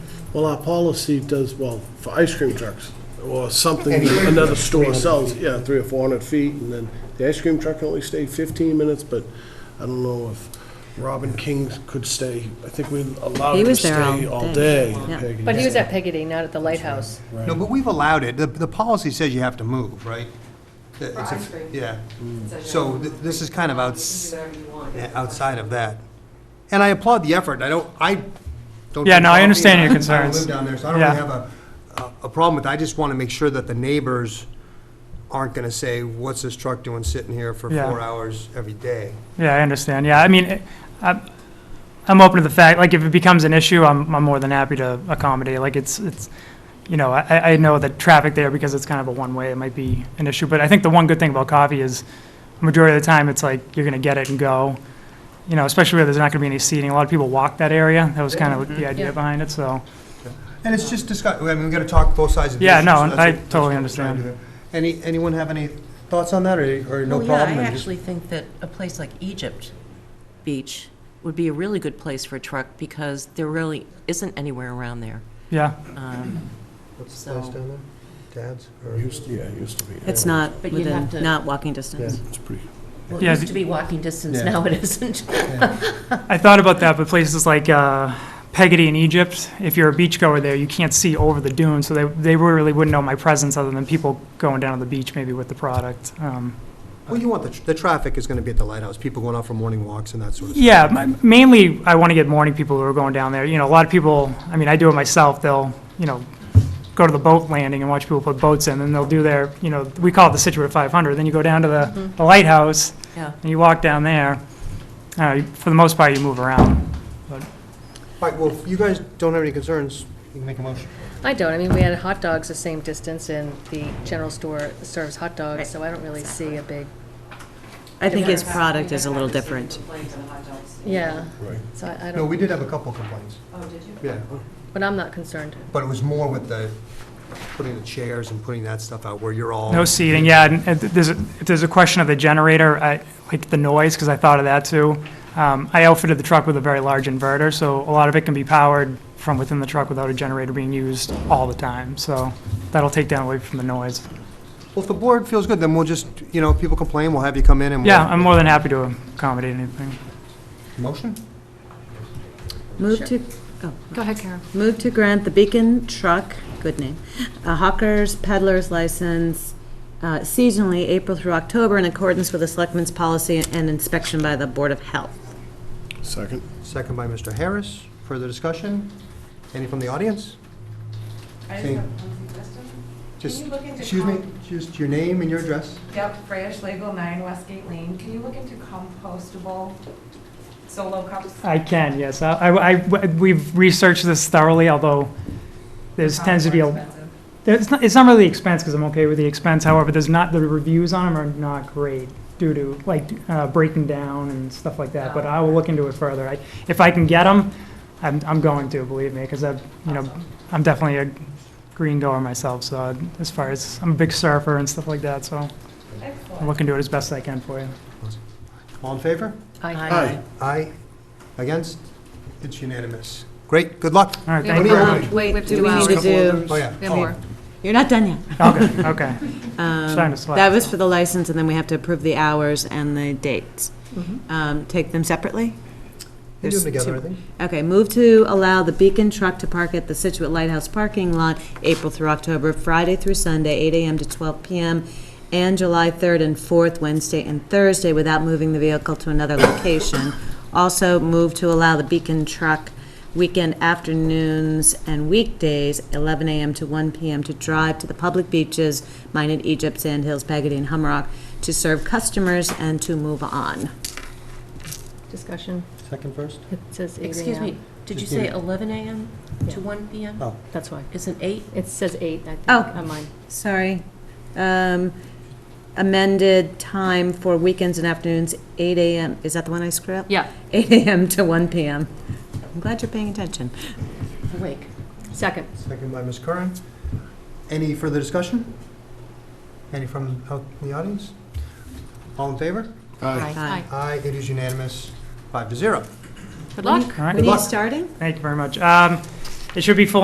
Well, our policy does, well, for ice cream trucks, or something, another store sells, yeah, three or four hundred feet, and then the ice cream truck can only stay fifteen minutes, but I don't know if Robin King could stay, I think we allowed He him to was there stay all all day, day. yeah. Peggy. But he was at Peggotty, not at the Lighthouse. No, but we've allowed it. The, the policy says you have to move, right? That it's a- ice cream. Yeah. Says you So have to th- move. this is kind of You can outs, do whatever you want. yeah, outside of that. And I applaud the effort. I don't, I don't. Yeah, drink no, I coffee, understand and your I- I don't concerns. live down there, so I don't really Yeah. have a, a- a problem with it. I just want to make sure that the neighbors aren't going to say, what's this truck doing sitting here for Yeah. four hours every day? Yeah, I understand. Yeah, I mean, it- I'm, I'm open to the fact, like, if it becomes an issue, I'm, I'm more than happy to accommodate. Like, it's, it's, you know, I, I know that traffic there, because it's kind of a one-way, it might be an issue. But I think the one good thing about coffee is, majority of the time, it's like, you're gonna get it and go. You know, especially where there's not gonna be any seating. A lot of people walk that area. That was kind of the Yeah. idea behind it, so. And it's just discuss, I mean, we got to talk both sides of the issue. Yeah, no, so that's I what- that's totally what we're trying to understand. do. Any, anyone have any thoughts on that, or, or no Oh, Well, yeah, problem? I and just- actually think that a place like Egypt Beach would be a really good place for a truck because there really isn't anywhere around there. Yeah, Um, What's the So- place down there? Dad's? or- Used to, yeah, it used to be. It's not But you'd have within, to- not walking distance. It's pretty. Well, it Yeah, used the- to be walking distance, Yeah. now it isn't. I thought about that, but places like uh, Peggotty in Egypt, if you're a beachgoer there, you can't see over the dune, so they, they really wouldn't know my presence other than people going down to the beach maybe with the product. Um, Well, you want, the, tr- the traffic is going to be at the lighthouse, people going out for morning walks and that sort of stuff. Yeah, m- mainly I want to get morning people who are going down there. You know, a lot of people, I mean, I do it myself, they'll, you know, go to the boat landing and watch people put boats in, and they'll do their, you know, we call it the Situate 500, then you go down to the the lighthouse, Yeah. and you walk down there. Uh, you- For the most part, you move around. All right, well, if you guys don't have any concerns, you can make a motion. I don't, I mean, we had hot dogs the same distance, and the general store serves hot dogs, so I don't really see a big, I think its You're gonna have- product you're is a gonna little have to see different. complaints on hot dogs. yeah, Right. so I I No, we don't, did have a couple complaints, Oh, did you? yeah, but I'm not concerned. but it was more with the, putting the chairs and putting that stuff out where you're all. No seating, yeah, and and there's, a- if there's a question of the generator, I- like the noise, because I thought of that too. Um, I outfitted the truck with a very large inverter, so a lot of it can be powered from within the truck without a generator being used all the time, so that'll take down away from the noise. Well, if the board feels good, then we'll just, you know, if people complain, we'll have you come in and. we'll- Yeah, I'm more than happy to accommodate anything. Motion? Move to, Go ahead, Karen. move to grant the Beacon Truck, good name, a hawker's peddler's license uh, seasonally, April through October, in accordance with the Selectmen's policy and inspection by the Board of Health. Second. Second by Mr. Harris. Further discussion? Any from the audience? I just Same. have one suggestion. Just, you look into excuse me, com- just your name and your address. Yep, Fresh Legal, 9 Westgate Lane. Can you look into compostable solo cups? I can, yes. I- I, I- we've researched this thoroughly, although there's tends to be, Probably more a expensive. there's not, it's not really expense, because I'm okay with the expense, however, there's not, the reviews on them are not great due to, like, uh, breaking down and stuff like that, but I will look into it further. I- If I can get them, I'm, I'm going to, believe me, because I've, you know, I'm definitely a green goer myself, so as far as, I'm a big surfer and stuff like that, so I'll Excellent. look into it as best I can for you. All in favor? I Hi. Aye. Against? It's unanimous. Great, good luck. All right, We have thank a you. lot. very much. Wait, do do we hours. need to do, Oh, yeah. We have more. you're not done yet. Okay, okay. Starting to Um, slack. That was for the license, and then we have to approve the hours and the dates. Um, Take them separately? We do There's them together, I two. think. Okay, move to allow the Beacon truck to park at the Situate Lighthouse parking lot, April through October, Friday through Sunday, 8 AM to 12 PM, and July 3rd and 4th, Wednesday and Thursday, without moving the vehicle to another location. Also, move to allow the Beacon truck weekend afternoons and weekdays, 11 AM to 1 PM, to drive to the public beaches, mine at Egypt, Sand Hills, Pagadine, and Humrock, to serve customers and to move on. Discussion, Second first? it says eight Excuse AM. me, Did you Just give say it- 11 AM Yeah. to 1 PM? Oh. That's why. Isn't 8? It says eight, I think, Oh. on mine. Sorry. Um, Amended time for weekends and afternoons, 8 AM, is that the one I screwed up? Yeah, 8 AM to 1 PM. I'm glad you're paying attention. Awake. second. Second by Ms. Curran. Any further discussion? Any from out in the audience? All in favor? Hi. Aye. Aye, it is unanimous, five to zero. Good luck. All right, When are Good you luck. starting? thank you very much. Um, It should be full